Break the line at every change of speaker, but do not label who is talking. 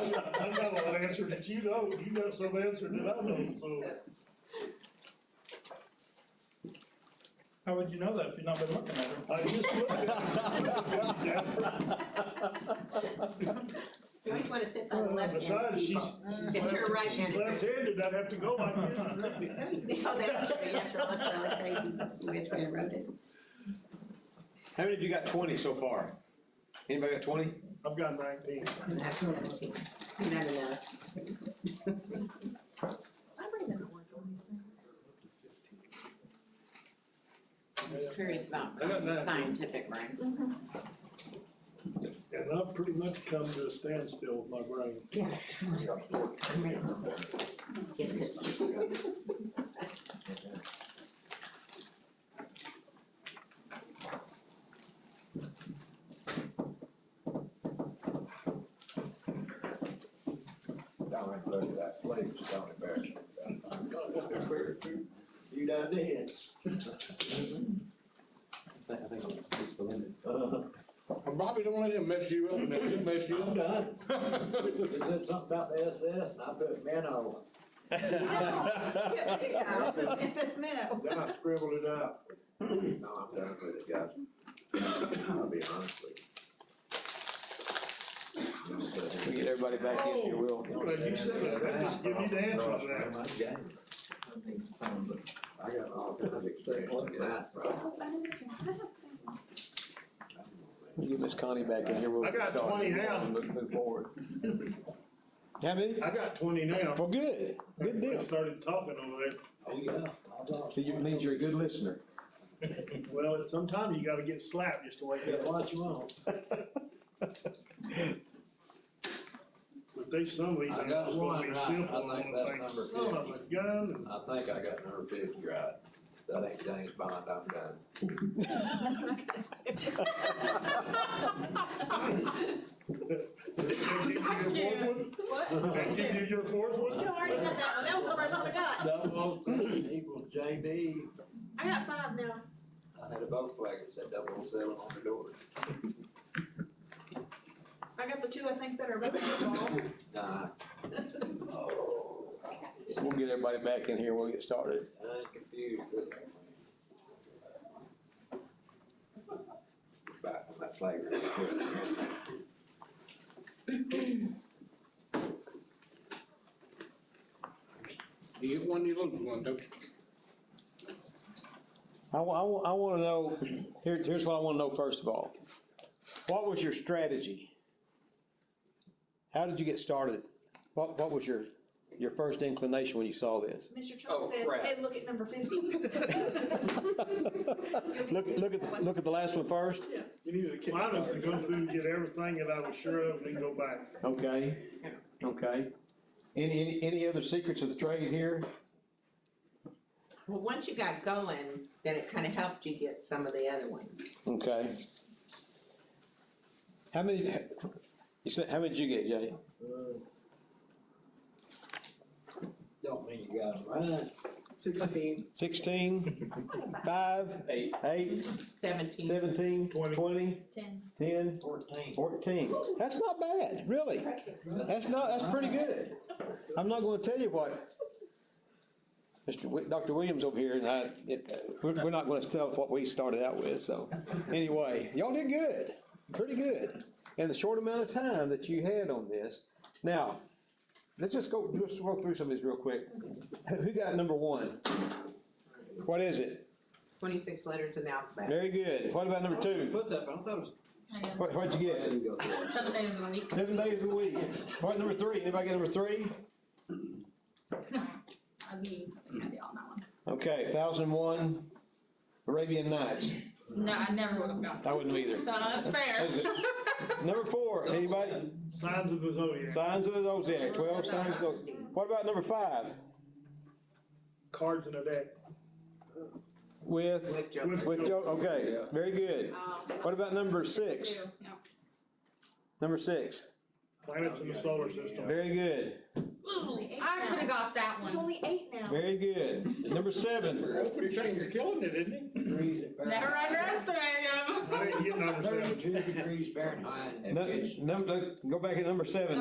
I got an answer that you know, you got some answer that I don't, so.
How would you know that if you've not been looking at her?
I just looked at
You always wanna sit by the
it.
left hand
Besides, she's,
people.
she's
If you're
left, she's
right-handed.
left-handed, I'd have to go like this. really.
No, that's true, you have to look really crazy to see which way I wrote it.
How many of you got twenty so far? Anybody got twenty?
I've got nineteen.
That's what I'm seeing. Not enough. I really don't want one of these
I'm just curious about
I got that.
scientific brain.
things.
And I've pretty much come to a standstill with my brain.
Get it.
Down and look at that place, down in Barrington. You done did.
I think, I think I'll push the limit.
Uh,
Bobby, don't let him mess you up, man, he'll mess you
I'm
up.
done. You said something about the SS and I put Mano,
It says minnow.
then I scribbled it out. No, I'm done with it, guys. I'll be honest with you. You
We get
said-
everybody back in here, Will.
Glad you said that, that just give me the answer to that.
No, it's not my game. I got all kinds of experience with math problems.
Oh,
You get Miss Connie back in here. we'll
I got
start
20 now.
and Move move forward. How many?
I got twenty now.
Well, good, good
I
deal.
Started talking over there.
Oh, yeah.
So you means you're a good listener.
Well, sometimes you gotta get slapped just to wake
Yeah,
up.
what you want?
But they, some of these,
I
are
got
just gonna
one
be
right.
simple,
I
and I'm
think that's
gonna think,
number
son of a gun, and
I think I got number fifty right. That ain't James Bond, I'm done.
Can you do your fourth one?
What?
Can you do your fourth one?
You already had that one, that was the first one I got.
Double seven equals JB.
I got five now.
I had a boat flag that said double seven on the door.
I got the two I think that are about to
Nah,
fall.
We'll get everybody back in here, we'll get started.
I'm confused this thing. Back on that flag.
You get one, you lose one, don't you?
I wa- I wa- I wanna know, here, here's what I wanna know first of all. What was your strategy? How did you get started? What, what was your, your first inclination when you saw this?
Mr. Chuck
Oh,
said,
crap.
hey, look at number fifty.
Look, look at, the- look at the last one first.
Mine was to go through and get everything that I was sure of, and then go back.
Okay, okay. Any, any, any other secrets of the trade here?
Well, once you got going, then it kinda helped you get some of the other ones.
Okay. How many, you said, how many did you get, Jay?
Don't mean you got it right.
Sixteen.
Sixteen, five,
Eight.
eight,
Seventeen.
seventeen,
Twenty.
twenty,
Ten.
ten,
Fourteen.
fourteen. That's not bad, really. That's not, that's pretty good. I'm not gonna tell you what. Mr. Wi- Dr. Williams over here, and I, it- we're, we're not gonna tell what we started out with, so. Anyway, y'all did good, pretty good, in the short amount of time that you had on this. Now, let's just go, just walk through some of these real quick. Who got number one? What is it?
Twenty-six letters in the alphabet.
Very good. What about number two?
Put that, but I thought it was.
I know.
What, what'd you
I
get?
didn't go for it.
Seven days a week.
Seven days a week. What, number three? Anybody got number three?
I'll be, I'll be on that one.
Okay, thousand one Arabian Nights.
No, I never would have gotten.
I wouldn't
So
either.
that's fair.
Number four, anybody?
Signs of the zodiac,
Signs of the Zodiac, twelve signs of the, what about number five?
cards in a deck.
With,
With Joker.
with Joe, okay, very good. What about number six?
Um, Two, yeah.
Number six,
Planets in the solar system.
very good,
I could have got that
There's
one.
only eight now.
very good. Number seven,
Open thing's killing it, isn't it?
Degrees at
Never underestimate him.
I didn't get number seven.
Thirty-two degrees Fahrenheit.
nu- num- go back at number seven.